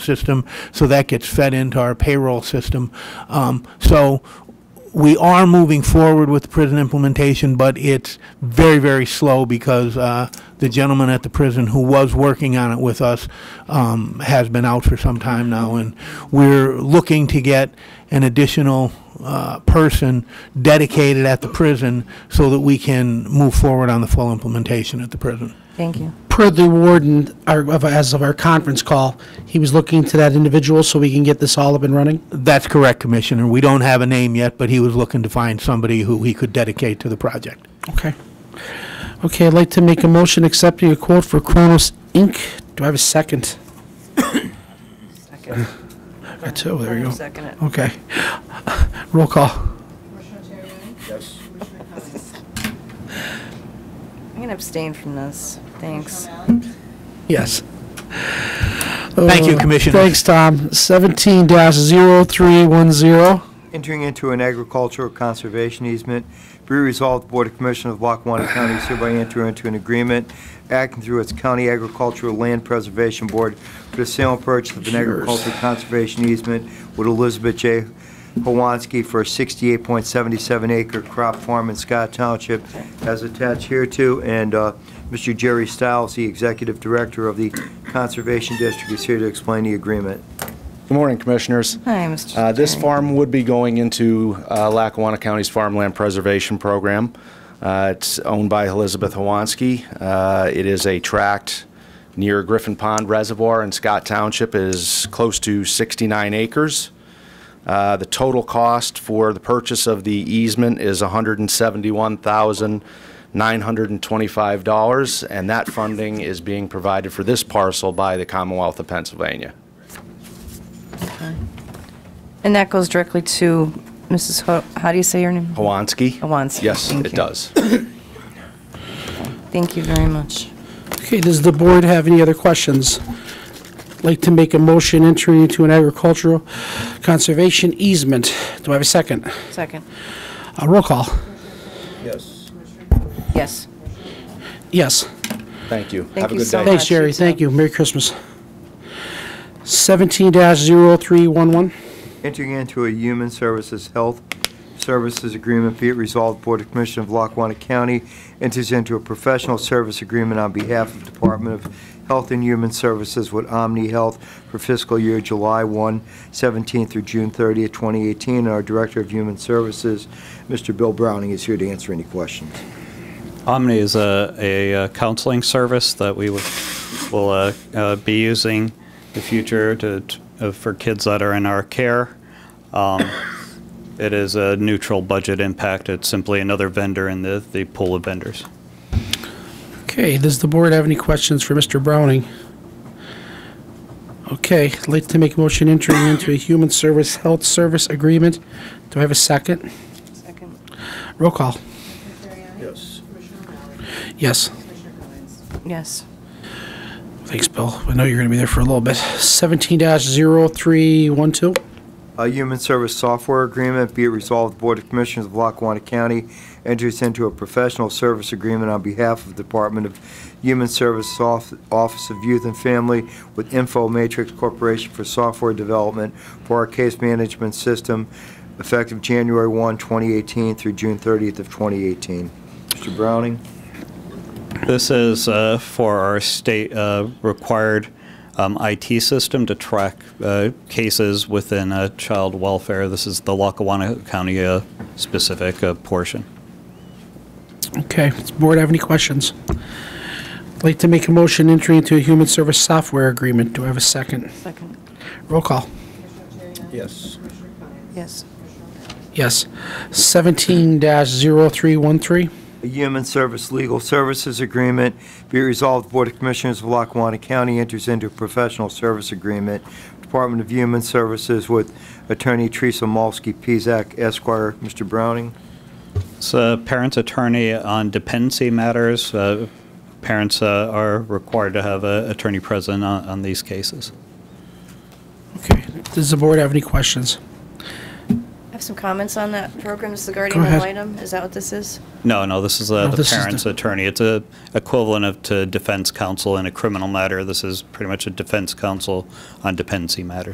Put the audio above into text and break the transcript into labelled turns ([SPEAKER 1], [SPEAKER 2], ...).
[SPEAKER 1] system, so that gets fed into our payroll system. Um, So we are moving forward with the prison implementation, but it's very, very slow because uh, the gentleman at the prison who was working on it with us um, has been out for some time now, and we're looking to get an additional uh, person dedicated at the prison so that we can move forward on the full implementation at the prison.
[SPEAKER 2] Thank you.
[SPEAKER 3] Per the warden, our- of- as of our conference call, he was looking to that individual so we can get this all up and running?
[SPEAKER 1] That's correct, Commissioner. We don't have a name yet, but he was looking to find somebody who he could dedicate to the project.
[SPEAKER 3] Okay. Okay, I'd like to make a motion accepting a quote for Kronos Inc. Do I have a second?
[SPEAKER 2] Second.
[SPEAKER 3] Got two, there you go.
[SPEAKER 2] Second it.
[SPEAKER 3] Okay. Roll call.
[SPEAKER 2] I'm going to abstain from this. Thanks.
[SPEAKER 3] Yes.
[SPEAKER 1] Thank you,
[SPEAKER 3] Uh,
[SPEAKER 1] Commissioner.
[SPEAKER 3] Thanks, Tom. Seventeen dash zero three one zero.
[SPEAKER 4] entering into an agricultural conservation easement. Be resolved, the Board of Commissioners of Lackawanna County is hereby enter into an agreement acting through its County Agricultural Land Preservation Board for the sale and purchase of an agricultural conservation easement with Elizabeth J. Hawansky for a 68.77 acre crop farm in Scott Township as attached hereto, and uh, Mr. Jerry Stiles, the Executive Director of the Conservation District, is here to explain the agreement.
[SPEAKER 5] Good morning, Commissioners.
[SPEAKER 2] Hi, Mr.
[SPEAKER 5] Uh, This
[SPEAKER 2] Terry.
[SPEAKER 5] farm would be going into uh, Lackawanna County's Farmland Preservation Program. Uh, It's owned by Elizabeth Hawansky. Uh, It is a tract near Griffin Pond Reservoir in Scott Township, It is close to 69 acres. Uh, The total cost for the purchase of the easement is $171,925, and that funding is being provided for this parcel by the Commonwealth of Pennsylvania.
[SPEAKER 2] And that goes directly to Mrs. Ho, how do you say your name?
[SPEAKER 5] Hawansky?
[SPEAKER 2] Hawansky,
[SPEAKER 5] Yes,
[SPEAKER 2] thank
[SPEAKER 5] it
[SPEAKER 2] you.
[SPEAKER 5] does.
[SPEAKER 2] Thank you very much.
[SPEAKER 3] Okay, does the board have any other questions? Like to make a motion entering into an agricultural conservation easement. Do I have a second?
[SPEAKER 2] Second.
[SPEAKER 3] Uh, roll call.
[SPEAKER 2] Yes.
[SPEAKER 3] Yes.
[SPEAKER 5] Thank you.
[SPEAKER 2] Thank
[SPEAKER 5] Have a
[SPEAKER 2] you
[SPEAKER 5] good
[SPEAKER 2] so
[SPEAKER 5] day.
[SPEAKER 2] much.
[SPEAKER 3] Thanks, Jerry.
[SPEAKER 2] you too.
[SPEAKER 3] Thank you. Merry Christmas. Seventeen dash zero three one one.
[SPEAKER 4] entering into a Human Services Health Services Agreement, be it resolved, Board of Commissioners of Lackawanna County enters into a professional service agreement on behalf of Department of Health and Human Services with Omni Health for fiscal year July 1, 17 through June 30, 2018. And our Director of Human Services, Mr. Bill Browning, is here to answer any questions.
[SPEAKER 6] Omni is a, a uh, counseling service that we will, will uh, uh, be using in the future to, t- uh, for kids that are in our care. Um, it is a neutral budget impact. It's simply another vendor in the, the pool of vendors.
[SPEAKER 3] Okay, does the board have any questions for Mr. Browning? Okay, I'd like to make a motion entering into a human service health service agreement. Do I have a second?
[SPEAKER 2] Second.
[SPEAKER 3] Roll call. Yes.
[SPEAKER 2] Yes.
[SPEAKER 3] Thanks, Bill. I know you're going to be there for a little bit. Seventeen dash zero three one two.
[SPEAKER 4] A Human Service Software Agreement, be it resolved, Board of Commissioners of Lackawanna County enters into a professional service agreement on behalf of Department of Human Service Sof- Office of Youth and Family with Info Matrix Corporation for software development for our case management system effective January 1, 2018 through June 30th of 2018. Mr. Browning?
[SPEAKER 6] This is uh, for our state uh, required um, IT system to track uh, cases within uh, child welfare. This is the Lackawanna County uh, specific uh, portion.
[SPEAKER 3] Okay, does the board have any questions? I'd like to make a motion entering into a human service software agreement. Do I have a second?
[SPEAKER 2] Second.
[SPEAKER 3] Roll call.
[SPEAKER 4] Yes.
[SPEAKER 2] Yes.
[SPEAKER 3] Yes. Seventeen dash zero three one three.
[SPEAKER 4] a Human Service Legal Services Agreement. Be it resolved, Board of Commissioners of Lackawanna County enters into a professional service agreement, Department of Human Services with Attorney Teresa Malsky Pizak Esquire. Mr. Browning?
[SPEAKER 6] It's a parent's attorney on dependency matters. Uh, Parents uh, are required to have an attorney present on on these cases.
[SPEAKER 3] Okay, does the board have any questions?
[SPEAKER 2] I have have some comments on that program? This is the Guardian ad
[SPEAKER 3] ahead.
[SPEAKER 2] litem? Is that what this is?
[SPEAKER 6] No, no, this is uh,
[SPEAKER 3] No,
[SPEAKER 6] the
[SPEAKER 3] this is the-
[SPEAKER 6] parent's attorney. It's a equivalent of to defense counsel in a criminal matter. This is pretty much a defense counsel on dependency matters.